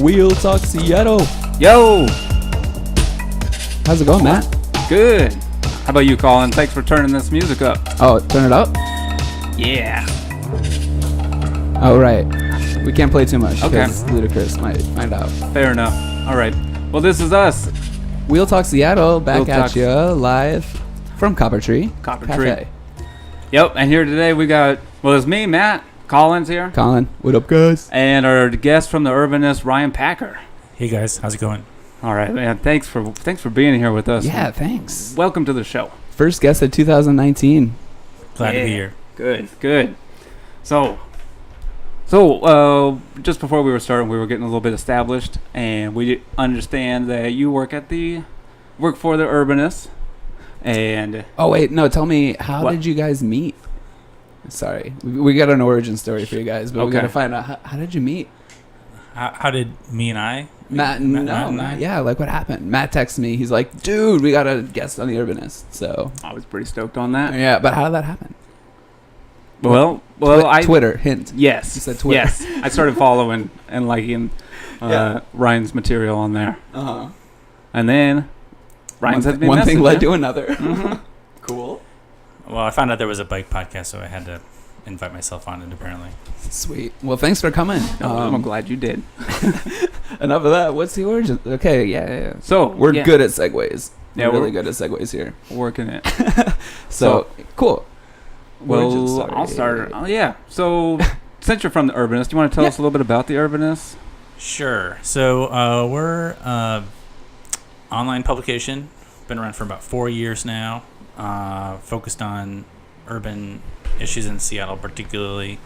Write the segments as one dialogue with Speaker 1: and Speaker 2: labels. Speaker 1: Wheel Talk Seattle.
Speaker 2: Yo,
Speaker 1: How's it going, Matt?
Speaker 2: good. How about you, Colin? Thanks for turning this music up.
Speaker 1: Oh, turn it up.
Speaker 2: Yeah.
Speaker 1: Oh, right. We can't play too much
Speaker 2: Okay.
Speaker 1: because Ludacris might find out.
Speaker 2: Fair enough. All right. Well, this is us.
Speaker 1: Wheel Talk Seattle back
Speaker 2: Wheel
Speaker 1: at
Speaker 2: Talk-
Speaker 1: you live from Copper Tree.
Speaker 2: Copper
Speaker 1: Cafe.
Speaker 2: Tree. Yep. And here today we got well, it's me, Matt. Colin's here,
Speaker 1: Colin, what up, guys?
Speaker 2: and our guest from the Urbanist, Ryan Packer.
Speaker 3: Hey guys, how's it going?
Speaker 2: All right, man. Thanks for thanks for being here with us.
Speaker 1: Yeah, thanks.
Speaker 2: Welcome to the show.
Speaker 1: First guest of 2019.
Speaker 3: Glad to be
Speaker 2: Yeah.
Speaker 3: here.
Speaker 2: Good. Good. So. So, uh, just before we were starting, we were getting a little bit established, and we understand that you work at the work for the Urbanist, and
Speaker 1: Oh wait, no. Tell me, how
Speaker 2: What?
Speaker 1: did you guys meet? Sorry, we, we got an origin story for you guys, but we
Speaker 2: Okay.
Speaker 1: gotta find out how, how did you meet.
Speaker 3: How, how did me and I?
Speaker 1: Matt,
Speaker 3: Matt-
Speaker 1: no,
Speaker 3: Matt and
Speaker 1: Matt-
Speaker 3: I?
Speaker 1: yeah, like what happened? Matt texts me. He's like, "Dude, we got a guest on the Urbanist." So
Speaker 2: I was pretty stoked on that.
Speaker 1: yeah, but how did that happen?
Speaker 2: Well, well,
Speaker 1: Twi-
Speaker 2: I
Speaker 1: Twitter hint.
Speaker 2: yes,
Speaker 1: You said Twitter.
Speaker 2: yes. I started following and liking uh,
Speaker 1: Yeah.
Speaker 2: Ryan's material on there,
Speaker 1: Uh-huh.
Speaker 2: and then Ryan
Speaker 1: One,
Speaker 2: sent
Speaker 1: thi-
Speaker 2: me a
Speaker 1: one
Speaker 2: message.
Speaker 1: thing led to another.
Speaker 2: Mhm.
Speaker 1: cool.
Speaker 3: Well, I found out there was a bike podcast, so I had to invite myself on it. Apparently,
Speaker 1: Sweet. Well, thanks for coming.
Speaker 2: No, I'm
Speaker 1: Um,
Speaker 2: glad you did.
Speaker 1: enough of that. What's the origin? Okay, yeah, yeah. yeah.
Speaker 2: So
Speaker 1: We're
Speaker 2: yeah,
Speaker 1: good at segues.
Speaker 2: Yeah,
Speaker 1: we're really
Speaker 2: we're-
Speaker 1: good at segues here.
Speaker 2: working it.
Speaker 1: So, cool. Origin
Speaker 2: Well,
Speaker 1: story.
Speaker 2: I'll start. Oh yeah. So since you're from the Urbanist, you want to tell us a little bit about the Urbanist?
Speaker 3: sure. So uh, we're uh, online publication. Been around for about four years now. Uh, focused on urban issues in Seattle, particularly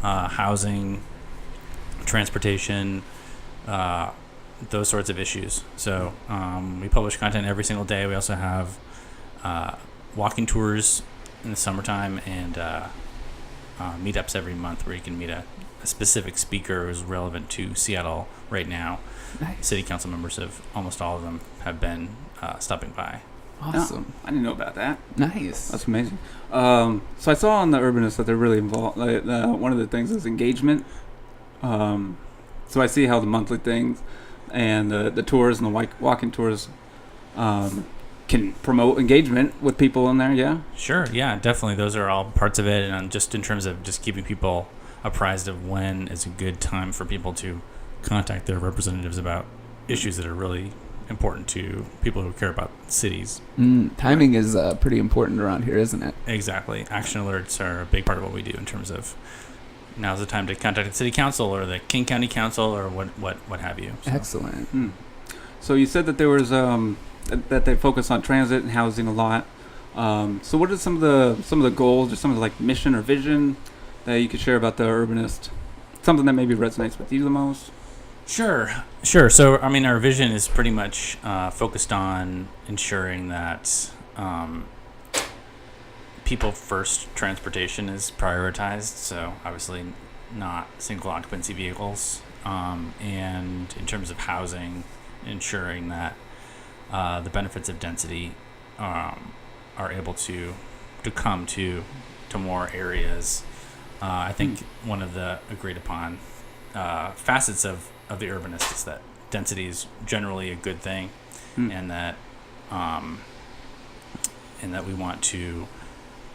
Speaker 3: uh, housing, transportation, uh, those sorts of issues. So um, we publish content every single day. We also have uh, walking tours in the summertime and uh, uh, meetups every month where you can meet a, a specific speaker who's relevant to Seattle right now.
Speaker 1: Nice.
Speaker 3: City council members of almost all of them have been uh, stopping by.
Speaker 1: Awesome.
Speaker 2: I didn't know about that.
Speaker 1: Nice.
Speaker 2: That's amazing. Um, so I saw on the Urbanist that they're really involved. Like, uh, one of the things is engagement. Um, so I see how the monthly things and the, the tours and the walk- walking tours um, can promote engagement with people in there. Yeah.
Speaker 3: Sure, yeah, definitely. Those are all parts of it, and um, just in terms of just keeping people apprised of when is a good time for people to contact their representatives about issues that are really important to people who care about cities.
Speaker 1: Mm, timing is uh, pretty important around here, isn't it?
Speaker 3: Exactly. Action alerts are a big part of what we do in terms of now's the time to contact the city council or the King County Council or what what what have you. So-
Speaker 1: Excellent.
Speaker 2: Hmm. So you said that there was um, th- that they focus on transit and housing a lot. Um, so what are some of the some of the goals or some of the like mission or vision that you could share about the Urbanist? Something that maybe resonates with you the most.
Speaker 3: Sure, sure. So, I mean, our vision is pretty much uh, focused on ensuring that um, people first transportation is prioritized. So, obviously, not single occupancy vehicles. Um, and in terms of housing, ensuring that uh, the benefits of density um, are able to to come to to more areas. Uh, I think one of the agreed upon uh, facets of, of the urbanist is that density is generally a good thing
Speaker 2: Hmm.
Speaker 3: and that um, and that we want to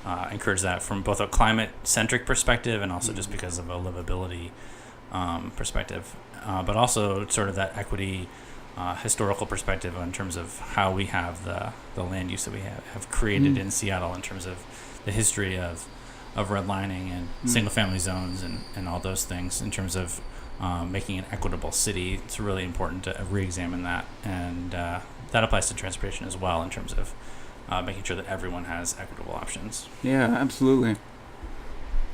Speaker 3: uh, encourage that from both a climate centric perspective and also just because of a livability um, perspective uh, but also sort of that equity uh, historical perspective in terms of how we have the, the land use that we have, have created
Speaker 1: Hmm.
Speaker 3: in Seattle in terms of the history of of redlining and
Speaker 2: Mm.
Speaker 3: single family zones and, and all those things in terms of um, making an equitable city. It's really important to re examine that. And uh, that applies to transportation as well in terms of uh, making sure that everyone has equitable options.
Speaker 2: Yeah, absolutely.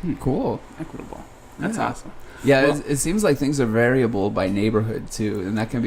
Speaker 1: Hmm, Cool.
Speaker 2: Equitable. That's
Speaker 1: Yeah.
Speaker 2: awesome.
Speaker 1: Yeah,
Speaker 2: Well-
Speaker 1: it, it seems like things are variable by neighborhood too, and that can be